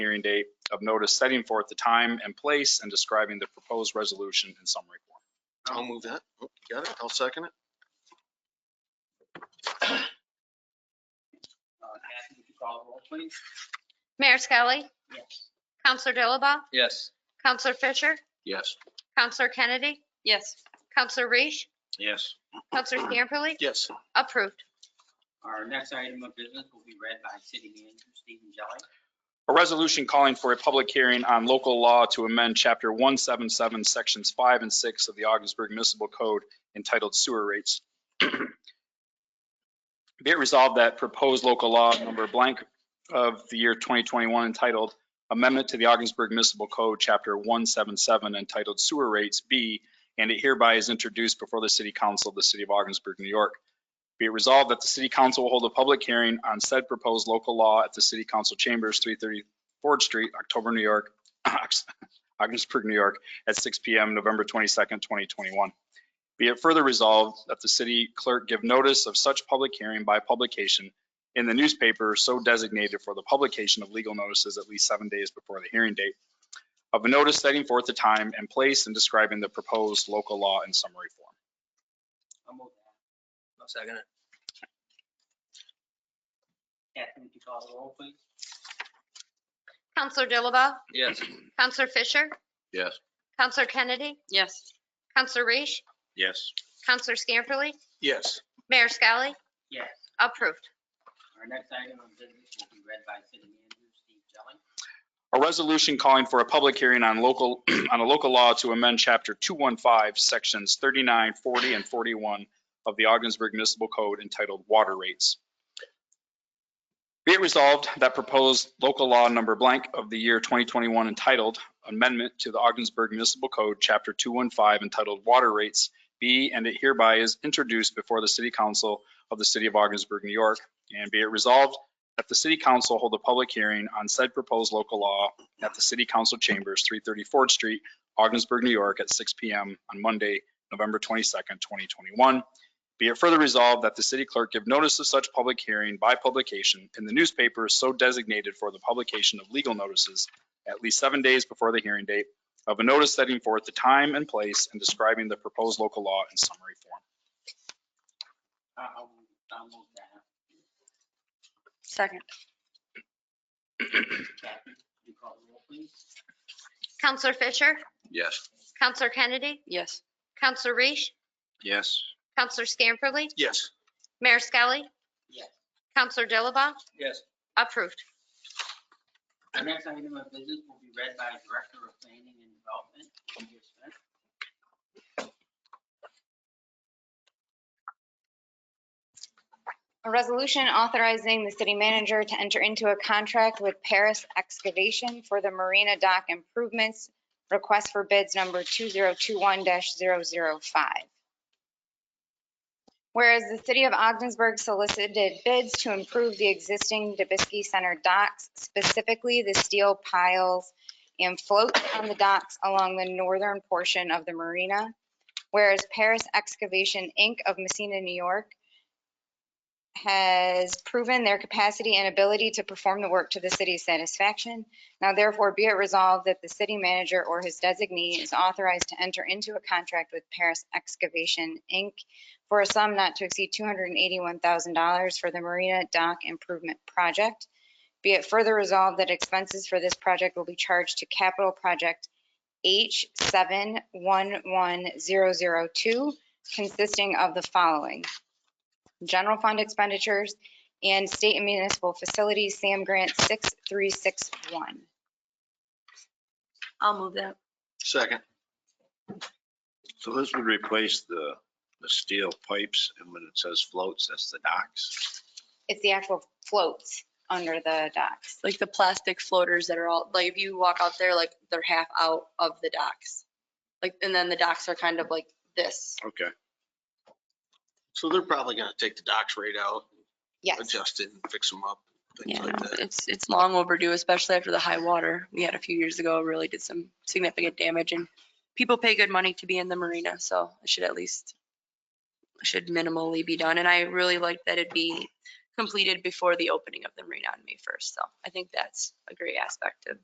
hearing date of notice setting forth the time and place and describing the proposed resolution in summary form. I'll move that. Oh, you Got it? I'll second it. Uh, Kathy, would you call the roll, please? Mayor Skelly? Yes. Counselor Dilaba? Yes. Counselor Fisher? Yes. Counselor Kennedy? yes, Counselor Reese? Yes. Counselor Scamperly? Yes. Approved. Our next item of business will be read by City Manager Stephen Jelli. A resolution calling for a public hearing on local law to amend Chapter 177, Sections 5 and 6 of the Augsburg Municipal Code entitled Sewer Rates. Be it resolved that proposed local law number blank of the year 2021 entitled Amendment to the Augsburg Municipal Code, Chapter 177 entitled Sewer Rates be, and it hereby is introduced before the City Council of the City of Augsburg, New York. Be it resolved that the city council will hold a public hearing on said proposed local law at the city council chambers, 330 Ford Street, October, New York, Augsburg, New York, at 6 PM, November 22nd, 2021. Be it further resolved that the city clerk give notice of such public hearing by publication in the newspaper so designated for the publication of legal notices at least seven days before the hearing date of a notice setting forth the time and place and describing the proposed local law in summary form. I'll move that. I'll second it. Kathy, would you call the roll, please? Counselor Dilaba? Yes. Counselor Fisher? Yes. Counselor Kennedy? yes, Counselor Reese? Yes. Counselor Scamperly? Yes. Mayor Skelly? Yes. Approved. Our next item of business will be read by City Manager Steve Jelli. A resolution calling for a public hearing on local, on a local law to amend Chapter 215, Sections 39, 40, and 41 of the Augsburg Municipal Code entitled Water Rates. Be it resolved that proposed local law number blank of the year 2021 entitled Amendment to the Augsburg Municipal Code, Chapter 215 entitled Water Rates be and it hereby is introduced before the City Council of the City of Augsburg, New York. And be it resolved that the city council hold a public hearing on said proposed local law at the city council chambers, 330 Ford Street, Augsburg, New York, at 6 PM on Monday, November 22nd, 2021. Be it further resolved that the city clerk give notice of such public hearing by publication in the newspaper so designated for the publication of legal notices at least seven days before the hearing date of a notice setting forth the time and place and describing the proposed local law in summary form. Uh, I'll, I'll move that. second, Kathy, would you call the roll, please? Counselor Fisher? Yes. Counselor Kennedy? yes, Counselor Reese? Yes. Counselor Scamperly? Yes. Mayor Skelly? Yes. Counselor Dilaba? Yes. Approved. Our next item of business will be read by Director of Planning and Development, Peter Smith. A resolution authorizing the city manager to enter into a contract with Paris Excavation for the Marina Dock Improvements, request for bids number 2021-005. Whereas the city of Ogdensburg solicited bids to improve the existing Dubisky Center docks, specifically the steel piles and floats on the docks along the northern portion of the marina. Whereas Paris Excavation, Inc. of Messina, New York, has proven their capacity and ability to perform the work to the city's satisfaction. Now therefore be it resolved that the city manager or his designee is authorized to enter into a contract with Paris Excavation, Inc. for a sum not to exceed $281,000 for the Marina Dock Improvement Project. Be it further resolved that expenses for this project will be charged to capital project H711002, consisting of the following general fund expenditures, and state and municipal facilities, SAM Grant 6361. I'll move that, Second. So this would replace the, the steel pipes and when it says floats, that's the docks. It's the actual floats under the docks. like the plastic floaters that are all, like if you walk out there, like they're half out of the docks. Like, and then the docks are kind of like this. Okay. So they're probably gonna take the docks rate out, Yes, adjust it and fix them up, things Yeah, like that. it's, it's long overdue, especially after the high water we had a few years ago, really did some significant damage and people pay good money to be in the marina, so it should at least, should minimally be done. And I really like that it'd be completed before the opening of the marina on May 1st. So I think that's a great aspect of